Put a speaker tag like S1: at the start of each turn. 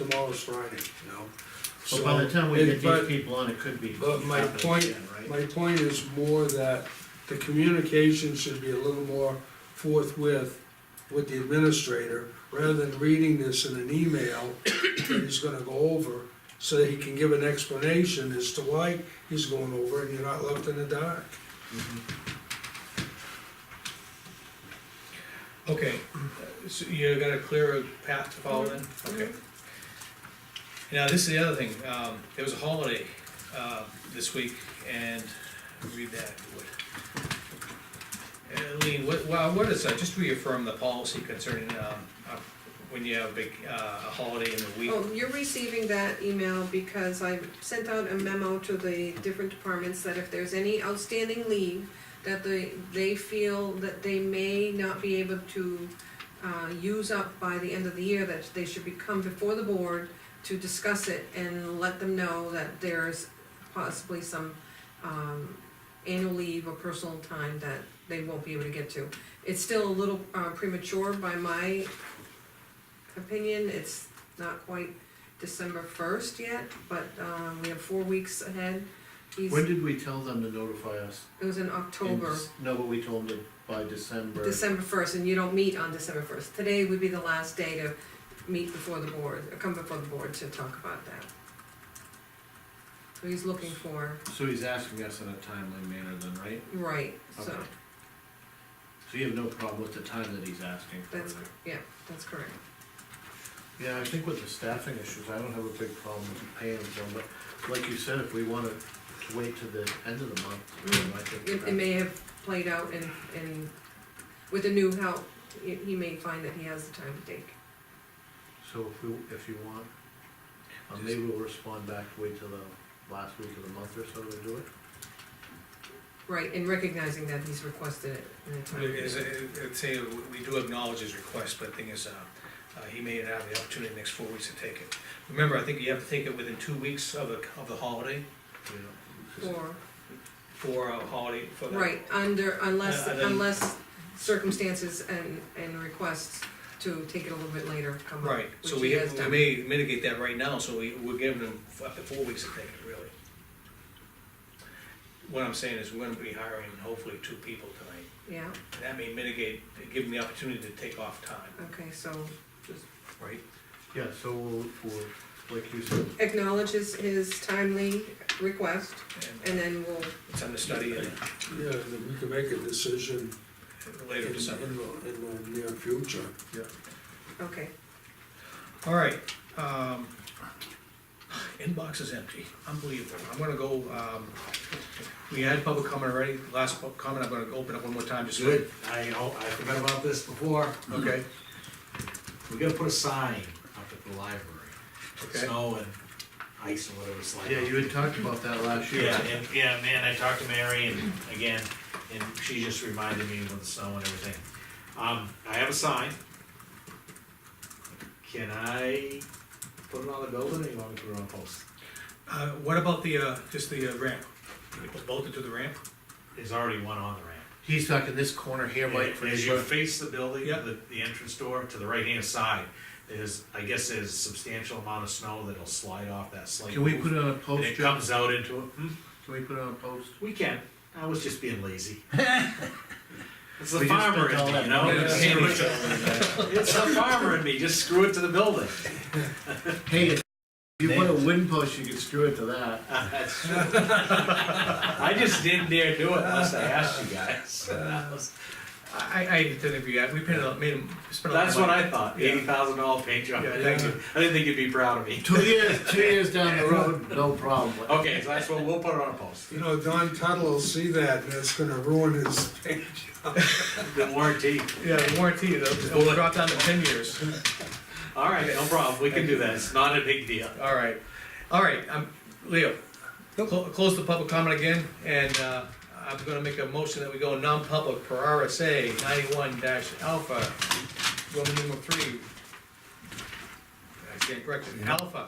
S1: tomorrow's Friday, you know?
S2: But by the
S1: So,
S2: time we get
S1: it- but-
S2: these people on, it could be.
S1: But my
S2: happening
S1: point-
S2: again, right?
S1: My point is more that the communication should be a little more forthwith with the administrator, rather than reading this in an email that he's gonna go over, so that he can give an explanation as to why he's going over and you're not left in the dark.
S3: Mm-hmm.
S4: Okay, so you're gonna clear a path to follow then?
S3: Mm-hmm.
S4: Okay. Now, this is the other thing, um, there was a holiday, uh, this week, and read that, if you would. And Lean, what, well, what is, that? just reaffirm the policy concerning, um, uh, when you have a big, uh, a holiday in the week.
S3: Oh, you're receiving that email because I sent out a memo to the different departments that if there's any outstanding leave, that they, they feel that they may not be able to, uh, use up by the end of the year, that they should be come before the board to discuss it and let them know that there's possibly some, um, annual leave or personal time that they won't be able to get to. It's still a little uh, premature by my opinion, it's not quite December first yet, but, um, we have four weeks ahead. He's,
S2: When
S3: it
S2: did we tell them to notify us?
S3: was in
S2: In
S3: October,
S2: Dec- No, but we told them by December.
S3: December first, and you don't meet on December first. Today would be the last day to meet before the board, or come before the board to talk about that. So he's looking for,
S2: So he's asking us in a timely manner then, right?
S3: right, so,
S2: Okay. So you have no problem with the time that he's asking for
S3: That's
S2: then?
S3: yeah, that's correct.
S2: Yeah, I think with the staffing issues, I don't have a big problem with paying them, but like you said, if we wanted to wait to the end of the month, then I think.
S3: Mm. It, it may have played out and, and with the new help, he, he may find that he has the time to take.
S2: So if we, if you want, uh, maybe we'll respond back, wait till the last week of the month or so to do it.
S3: Right, and recognizing that he's requested it in a
S4: But
S3: time.
S4: it is- it- I'd say we do acknowledge his request, but the thing is, uh, uh, he may not have the opportunity in the next four weeks to take it. Remember, I think you have to take it within two weeks of the, of the holiday,
S2: you know.
S3: Or,
S4: for a holiday, for that.
S3: right, under, unless,
S4: Yeah, and then-
S3: unless circumstances and, and requests to take it a little bit later come up.
S4: Right, so
S3: which
S4: we
S3: he
S4: have,
S3: has
S4: we
S3: done.
S4: may mitigate that right now, so we, we're giving them up to four weeks to take it, really. What I'm saying is, we're gonna be hiring hopefully two people tonight,
S3: Yeah,
S4: and that may mitigate, give them the opportunity to take off time,
S3: okay, so
S4: right?
S2: Yeah, so we'll, we'll, like you said,
S3: acknowledges his timely request,
S4: And
S3: and then we'll,
S4: it's under study in
S1: Yeah, and then we can make a decision in,
S4: later
S1: in
S4: December.
S1: the, in the near future.
S3: okay,
S4: All right, um, inbox is empty, unbelievable, I'm gonna go, um, we had public comment already, last public comment, I'm gonna open up one more time, just.
S5: Good, I, oh, I forgot about this before,
S4: Okay,
S5: we gotta put a sign up at the library.
S4: okay.
S5: Snow and ice and whatever slide.
S2: yeah, you had talked about that last year.
S5: Yeah, and, yeah, man, I talked to Mary and again, and she just reminded me of the snow and everything. Um, I have a sign. Can I put it on the building or you want me to put it on a post?
S4: Uh, what about the, uh, just the uh, ramp? People Bolted to the ramp?
S5: There's already one on the ramp.
S2: He's talking this corner here, Mike, for
S5: As
S2: his,
S5: you face the building,
S4: Yeah.
S5: the, the entrance door to the right hand side, there's, I guess there's substantial amount of snow that'll slide off that slate.
S2: can we put it on a
S5: And
S2: post,
S5: it
S2: John?
S5: comes out into it. Hmm?
S2: Can we put it on a post?
S5: We can. I was just being lazy. It's the
S2: We just
S5: farmer
S2: spent
S5: in
S2: all
S5: me,
S2: that
S5: you know?
S4: money.
S5: Just screw it- It's the farmer in me, just screw it to the building.
S2: Hey, if you put a wind post, you could screw it to that.
S5: That's true. I just didn't dare do it unless I asked you guys. That was-
S4: I, I- I didn't agree, I- we paid a, made him spend a lot of
S5: That's what
S4: money.
S5: I thought,
S4: Yeah.
S5: eighty thousand dollar paint job.
S4: Yeah,
S5: I
S4: thank
S5: didn't think you'd be proud of me.
S2: Two years, two years down the road, no problem.
S5: Okay, so that's what, we'll put it on a post.
S1: You know, Don Tuttle will see that, and it's gonna ruin his
S5: The warranty.
S4: Yeah, warranty, it'll, it'll drop down to ten years.
S5: All right, no problem, we can do that, it's not a big deal.
S4: All right, all right, um, Leo, clo- close the public comment again, and, uh, I'm gonna make a motion that we go non-public per RSA ninety-one dash alpha, Roman numeral three. I can't correct it, alpha.